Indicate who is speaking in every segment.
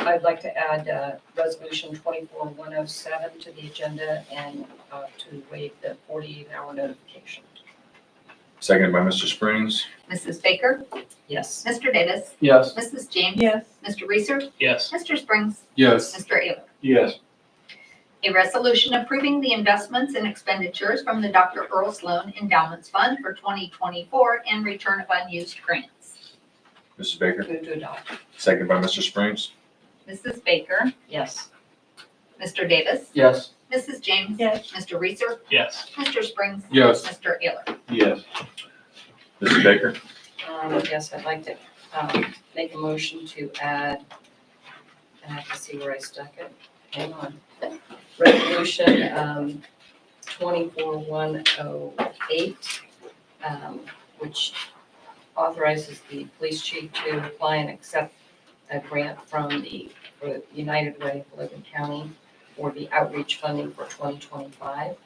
Speaker 1: I'd like to add uh, Resolution 24107 to the agenda and uh, to waive the 48-hour notification.
Speaker 2: Seconded by Mr. Springs.
Speaker 3: Mrs. Baker,
Speaker 1: Yes.
Speaker 3: Mr. Davis,
Speaker 4: Yes.
Speaker 3: Mrs. James,
Speaker 5: yes,
Speaker 3: Mr. Reeser,
Speaker 4: Yes.
Speaker 3: Mr. Springs,
Speaker 6: yes,
Speaker 3: Mr. Ailer.
Speaker 4: Yes.
Speaker 3: A resolution approving the investments and expenditures from the Dr. Earl Sloan Endowments Fund for 2024 and return of unused grants.
Speaker 2: Mrs. Baker,
Speaker 1: Move to adopt.
Speaker 2: seconded by Mr. Springs.
Speaker 3: Mrs. Baker,
Speaker 1: Yes.
Speaker 3: Mr. Davis,
Speaker 4: Yes.
Speaker 3: Mrs. James,
Speaker 5: yes,
Speaker 3: Mr. Reeser,
Speaker 4: Yes.
Speaker 3: Mr. Springs,
Speaker 6: yes,
Speaker 3: Mr. Ailer.
Speaker 4: Yes.
Speaker 2: Mrs. Baker,
Speaker 1: Um, Yes, I'd like to um, make a motion to add, I have to see where I stuck it. Hang on. Resolution um, 24108, um, which authorizes the police chief to apply and accept a grant from the for United Way of Logan County for the outreach funding for 2025.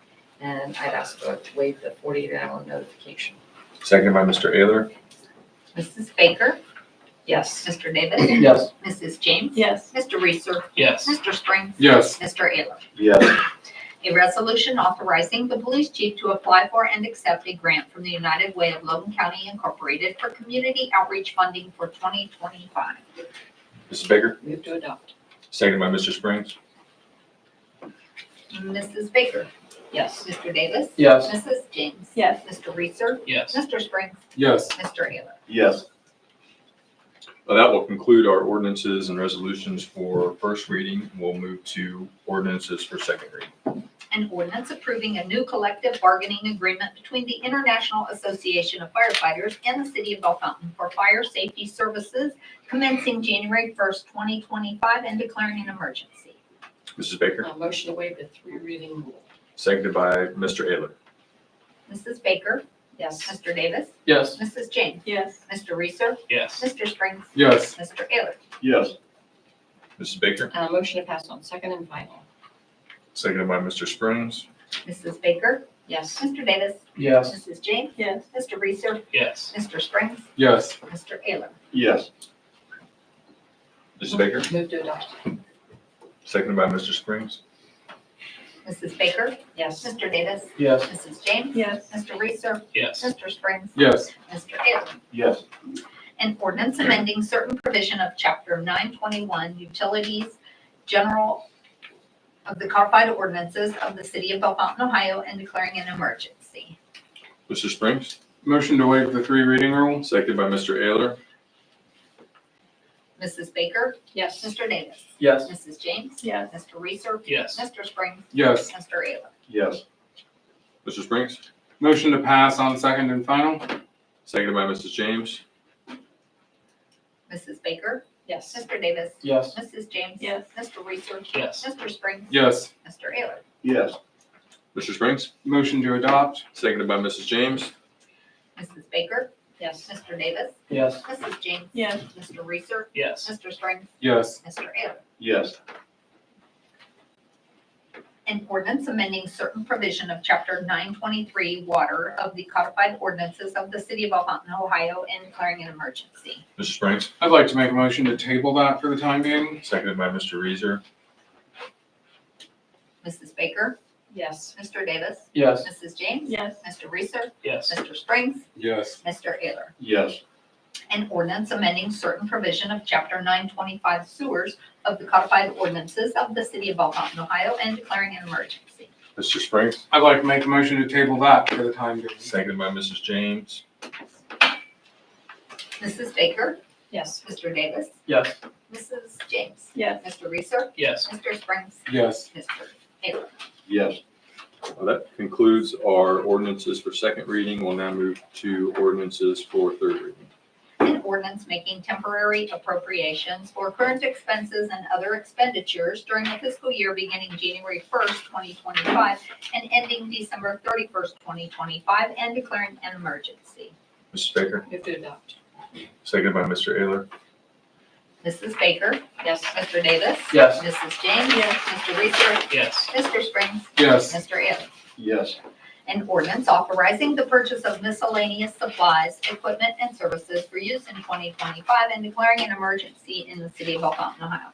Speaker 1: And I'd ask to waive the 48-hour notification.
Speaker 2: seconded by Mr. Ayler.
Speaker 3: Mrs. Baker,
Speaker 1: Yes.
Speaker 3: Mr. Davis,
Speaker 4: Yes.
Speaker 3: Mrs. James,
Speaker 5: yes,
Speaker 3: Mr. Reeser,
Speaker 4: Yes.
Speaker 3: Mr. Springs,
Speaker 6: yes,
Speaker 3: Mr. Ailer.
Speaker 4: Yes.
Speaker 3: A resolution authorizing the police chief to apply for and accept a grant from the United Way of Logan County Incorporated for community outreach funding for 2025.
Speaker 2: Mrs. Baker,
Speaker 1: Move to adopt.
Speaker 2: seconded by Mr. Springs.
Speaker 3: Mrs. Baker.
Speaker 1: Yes.
Speaker 3: Mr. Davis.
Speaker 4: Yes.
Speaker 3: Mrs. James.
Speaker 5: yes,
Speaker 3: Mr. Reeser.
Speaker 4: Yes.
Speaker 3: Mr. Springs.
Speaker 6: yes.
Speaker 3: Mr. Ailer.
Speaker 4: Yes.
Speaker 2: Well, Uh, That will conclude our ordinances and resolutions for first reading. We'll move to ordinances for second reading.
Speaker 3: An ordinance approving a new collective bargaining agreement between the International Association of Firefighters and the City of Bell Fountain for fire safety services commencing January 1st, 2025 and declaring an emergency.
Speaker 2: Mrs. Baker,
Speaker 1: Uh, Motion to waive the three reading rule.
Speaker 2: seconded by Mr. Ayler.
Speaker 3: Mrs. Baker.
Speaker 1: Yes.
Speaker 3: Mr. Davis.
Speaker 4: Yes.
Speaker 3: Mrs. James.
Speaker 5: yes,
Speaker 3: Mr. Reeser.
Speaker 4: Yes.
Speaker 3: Mr. Springs.
Speaker 6: Yes,
Speaker 3: Mr. Ailer.
Speaker 4: Yes.
Speaker 2: Mrs. Baker,
Speaker 1: Uh, Motion to pass on second and final.
Speaker 2: seconded by Mr. Springs.
Speaker 3: Mrs. Baker.
Speaker 1: Yes.
Speaker 3: Mr. Davis.
Speaker 4: Yes.
Speaker 3: Mrs. James.
Speaker 5: yes,
Speaker 3: Mr. Reeser.
Speaker 4: Yes.
Speaker 3: Mr. Springs.
Speaker 6: yes,
Speaker 3: Mr. Ailer.
Speaker 4: Yes.
Speaker 2: Mrs. Baker,
Speaker 1: Move to adopt.
Speaker 2: seconded by Mr. Springs.
Speaker 3: Mrs. Baker.
Speaker 1: Yes.
Speaker 3: Mr. Davis.
Speaker 4: Yes.
Speaker 3: Mrs. James.
Speaker 5: yes,
Speaker 3: Mr. Reeser.
Speaker 4: Yes.
Speaker 3: Mr. Springs.
Speaker 6: yes,
Speaker 3: Mr. Ailer.
Speaker 4: Yes.
Speaker 3: An ordinance amending certain provision of Chapter 921 Utilities General of the Codified Ordinances of the City of Belle Fountain, Ohio, and declaring an emergency.
Speaker 2: Mr. Springs,
Speaker 6: motion to waive the three reading rule?
Speaker 2: seconded by Mr. Ayler.
Speaker 3: Mrs. Baker.
Speaker 1: Yes.
Speaker 3: Mr. Davis.
Speaker 4: Yes.
Speaker 3: Mrs. James.
Speaker 5: yes,
Speaker 3: Mr. Reeser.
Speaker 4: Yes.
Speaker 3: Mr. Springs.
Speaker 6: Yes,
Speaker 3: Mr. Ailer.
Speaker 4: Yes.
Speaker 2: Mr. Springs,
Speaker 6: motion to pass on second and final?
Speaker 2: seconded by Mrs. James.
Speaker 3: Mrs. Baker.
Speaker 1: Yes.
Speaker 3: Mr. Davis.
Speaker 4: Yes.
Speaker 3: Mrs. James.
Speaker 5: yes,
Speaker 3: Mr. Reeser.
Speaker 4: Yes.
Speaker 3: Mr. Springs.
Speaker 6: Yes,
Speaker 3: Mr. Ailer.
Speaker 4: Yes.
Speaker 2: Mr. Springs,
Speaker 6: motion to adopt?
Speaker 2: seconded by Mrs. James.
Speaker 3: Mrs. Baker.
Speaker 1: Yes.
Speaker 3: Mr. Davis.
Speaker 4: Yes.
Speaker 3: Mrs. James.
Speaker 5: yes,
Speaker 3: Mr. Reeser.
Speaker 4: Yes.
Speaker 3: Mr. Springs.
Speaker 6: Yes,
Speaker 3: Mr. Ailer.
Speaker 4: Yes.
Speaker 3: An ordinance amending certain provision of Chapter 923 Water of the Codified Ordinances of the City of Belle Fountain, Ohio, and declaring an emergency.
Speaker 2: Mr. Springs,
Speaker 6: I'd like to make a motion to table that for the time being?
Speaker 2: seconded by Mr. Reeser.
Speaker 3: Mrs. Baker.
Speaker 1: Yes.
Speaker 3: Mr. Davis.
Speaker 4: Yes.
Speaker 3: Mrs. James.
Speaker 5: yes,
Speaker 3: Mr. Reeser.
Speaker 4: Yes.
Speaker 3: Mr. Springs.
Speaker 6: Yes,
Speaker 3: Mr. Ailer.
Speaker 4: Yes.
Speaker 3: An ordinance amending certain provision of Chapter 925 sewers of the codified ordinances of the City of Belle Fountain, Ohio, and declaring an emergency.
Speaker 2: Mr. Springs,
Speaker 6: I'd like to make a motion to table that for the time being?
Speaker 2: seconded by Mrs. James.
Speaker 3: Mrs. Baker,
Speaker 1: Yes.
Speaker 3: Mr. Davis,
Speaker 4: Yes.
Speaker 3: Mrs. James,
Speaker 5: yes,
Speaker 3: Mr. Reeser,
Speaker 4: Yes.
Speaker 3: Mr. Springs,
Speaker 6: Yes,
Speaker 3: Mr.
Speaker 4: Yes.
Speaker 2: Well, That concludes our ordinances for second reading. We'll now move to ordinances for third reading.
Speaker 3: an ordinance making temporary appropriations for current expenses and other expenditures during the fiscal year beginning January 1st, 2025, and ending December 31st, 2025, and declaring an emergency.
Speaker 2: Mrs. Baker,
Speaker 1: Move to adopt.
Speaker 2: seconded by Mr. Ayler.
Speaker 3: Mrs. Baker,
Speaker 1: Yes.
Speaker 3: Mr. Davis?
Speaker 4: Yes.
Speaker 3: Mrs. James?
Speaker 5: Yes.
Speaker 3: Mr. Reeser?
Speaker 4: Yes.
Speaker 3: Mr. Springs?
Speaker 6: yes,
Speaker 3: Mr. Ailer?
Speaker 4: Yes.
Speaker 3: An ordinance authorizing the purchase of miscellaneous supplies, equipment, and services for use in 2025 and declaring an emergency in the city of Belle Fountain, Ohio.